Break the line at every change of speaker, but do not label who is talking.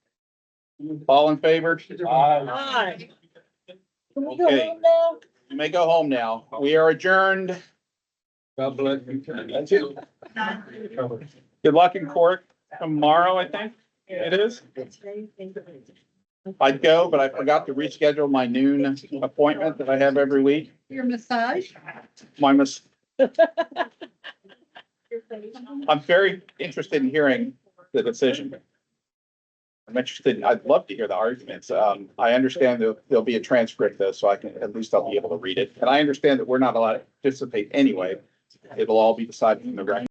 All in favor?
Aye.
Can we go
Okay.
home now?
You may go home now. We are adjourned.
God bless you.
That's it. Good luck in court tomorrow, I think it is. I'd go, but I forgot to reschedule my noon appointment that I have every week.
Your massage?
My mis- I'm very interested in hearing the decision. I'm interested, I'd love to hear the arguments. Um, I understand there'll, there'll be a transcript though, so I can, at least I'll be able to read it. And I understand that we're not allowed to participate anyway. It'll all be decided in the record.